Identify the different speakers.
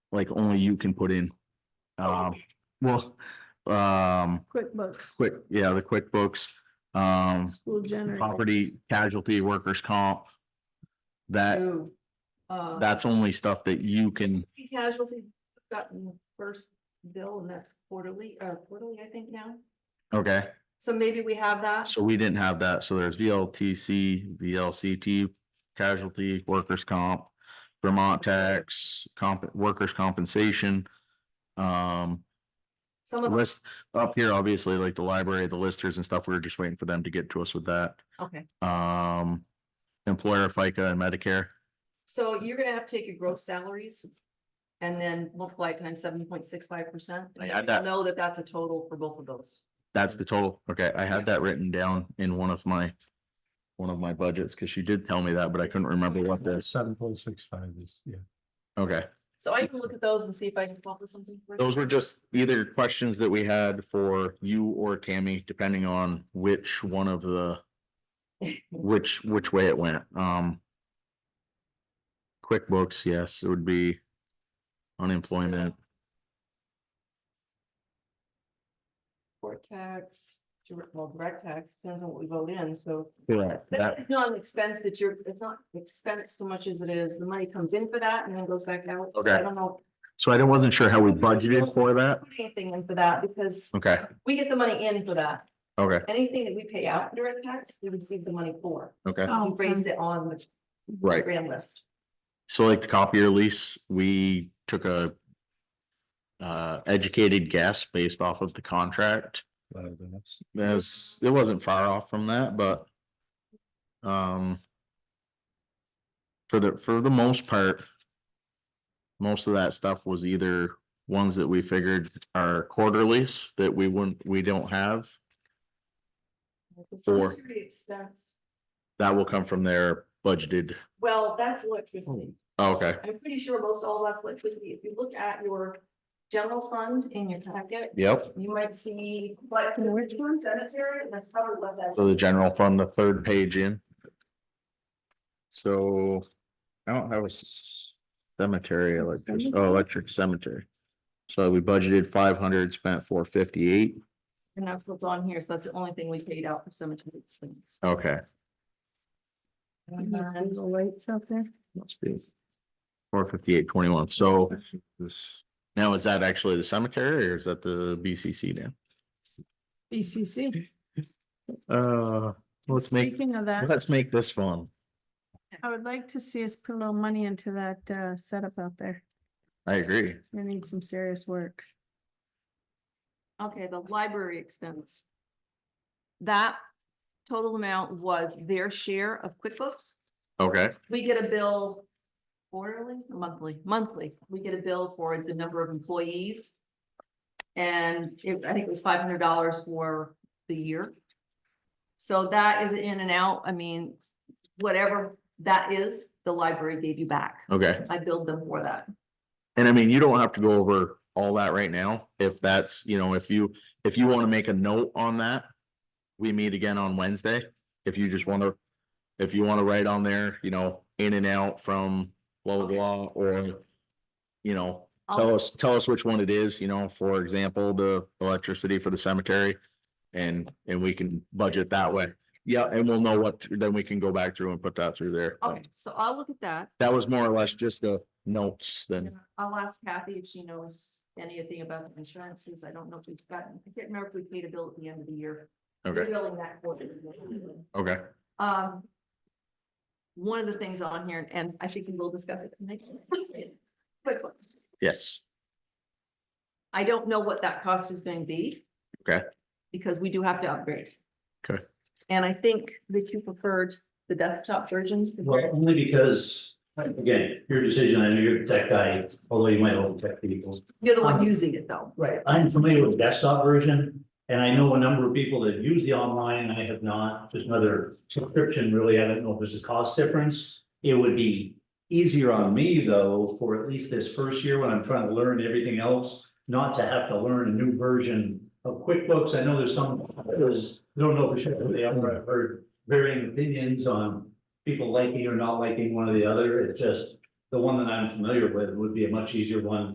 Speaker 1: like only you can put in. Um, well, um,
Speaker 2: QuickBooks,
Speaker 1: quick, yeah, the QuickBooks, um,
Speaker 2: school generator.
Speaker 1: property casualty workers comp. That,
Speaker 2: Ooh, uh,
Speaker 1: that's only stuff that you can,
Speaker 2: Casualty gotten the first bill and that's quarterly, uh, quarterly, I think now.
Speaker 1: okay,
Speaker 2: So maybe we have that.
Speaker 1: so we didn't have that, so there's VLTC, VLCT, casualty, workers comp. Vermont tax, comp, workers' compensation. Um,
Speaker 2: Some of,
Speaker 1: list, up here, obviously, like the library, the listers and stuff, we were just waiting for them to get to us with that.
Speaker 2: okay.
Speaker 1: um, employer FICA and Medicare.
Speaker 2: So you're gonna have to take your gross salaries and then multiply it times seven point six five percent.
Speaker 1: I had that.
Speaker 2: Know that that's a total for both of those.
Speaker 1: That's the total. Okay, I
Speaker 2: Yeah.
Speaker 1: had that written down in one of my, one of my budgets, because she did tell me that, but I couldn't remember what this.
Speaker 3: Seven point six five is, yeah.
Speaker 1: Okay,
Speaker 2: So I can look at those and see if I can come up with something. for you.
Speaker 1: those were just either questions that we had for you or Tammy, depending on which one of the, which, which way it went. Um, QuickBooks, yes, it would be unemployment.
Speaker 2: Court tax, direct- well, direct tax, depends on what we vote in, so.
Speaker 1: Correct. That,
Speaker 2: It's not an expense that you're, it's not expense so much as it is, the money comes in for that and then goes back out. So I
Speaker 1: Okay.
Speaker 2: don't know,
Speaker 1: so I wasn't sure how we budgeted for that.
Speaker 2: put anything in for that because
Speaker 1: Okay,
Speaker 2: we get the money in for that.
Speaker 1: okay.
Speaker 2: Anything that we pay out in direct tax, we receive the money for.
Speaker 1: Okay,
Speaker 2: We raised it on the.
Speaker 1: Right.
Speaker 2: Grand list.
Speaker 1: so like the copier lease, we took a. Uh, educated guess based off of the contract. That was, it wasn't far off from that, but. Um. For the, for the most part. Most of that stuff was either ones that we figured are quarterlies that we wouldn't, we don't have. Four.
Speaker 2: Expense.
Speaker 1: That will come from their budgeted.
Speaker 2: Well, that's electricity.
Speaker 1: Okay,
Speaker 2: I'm pretty sure most all that's electricity, if you look at your general fund in your packet,
Speaker 1: yep.
Speaker 2: you might see, like, in Richmond Cemetery, and that's probably less. than-
Speaker 1: So the general fund, the third page in. So I don't have a s- cemetery, electric, oh, electric cemetery. So we budgeted five hundred, spent four fifty-eight.
Speaker 2: And that's what's on here, so that's the only thing we paid out for cemetery expense.
Speaker 1: Okay.
Speaker 2: And then
Speaker 4: lights out there.
Speaker 1: Must be. Four fifty-eight, twenty-one. So
Speaker 3: This,
Speaker 1: now is that actually the cemetery or is that the BCC now?
Speaker 4: BCC.
Speaker 1: Uh, let's make,
Speaker 4: Speaking of that,
Speaker 1: let's make this fun.
Speaker 4: I would like to see us put a little money into that uh setup out there.
Speaker 1: I agree.
Speaker 4: We need some serious work.
Speaker 2: Okay, the library expense. That total amount was their share of QuickBooks.
Speaker 1: Okay,
Speaker 2: We get a bill quarterly, monthly, monthly. We get a bill for the number of employees. And it- I think it was five hundred dollars for the year. So that is in and out. I mean, whatever that is, the library gave you back.
Speaker 1: okay.
Speaker 2: I billed them for that.
Speaker 1: And I mean, you don't have to go over all that right now, if that's, you know, if you, if you wanna make a note on that. We meet again on Wednesday, if you just wanna, if you wanna write on there, you know, in and out from blah, blah, blah, or. You know, tell
Speaker 2: I'll,
Speaker 1: us, tell us which one it is, you know, for example, the electricity for the cemetery. And, and we can budget that way, yeah, and we'll know what, then we can go back through and put that through there.
Speaker 2: okay, so I'll look at that.
Speaker 1: That was more or less just the notes then,
Speaker 2: I'll ask Kathy if she knows anything about the insurances. I don't know if we've gotten, I can't remember if we paid a bill at the end of the year. We're
Speaker 1: okay,
Speaker 2: Billing that quarterly.
Speaker 1: okay.
Speaker 2: Um. One of the things on here, and I think we will discuss it tonight. QuickBooks.
Speaker 1: Yes.
Speaker 2: I don't know what that cost is going to be.
Speaker 1: Okay.
Speaker 2: Because we do have to upgrade.
Speaker 1: Okay.
Speaker 2: And I think that you preferred the desktop versions.
Speaker 5: Well,
Speaker 2: compared-
Speaker 5: only because, again, your decision, I know you're the tech guy, although you might own tech people.
Speaker 2: You're the
Speaker 1: Uh-huh.
Speaker 2: one using it though.
Speaker 5: Right. I'm familiar with desktop version, and I know a number of people that use the online, and I have not, just another subscription, really, I don't know if there's a cost difference. It would be easier on me, though, for at least this first year, when I'm trying to learn everything else, not to have to learn a new version of QuickBooks, I know there's some, there's, I don't know for sure, they have I've heard varying opinions on people liking or not liking one or the other, it just, the one that I'm familiar with would be a much easier one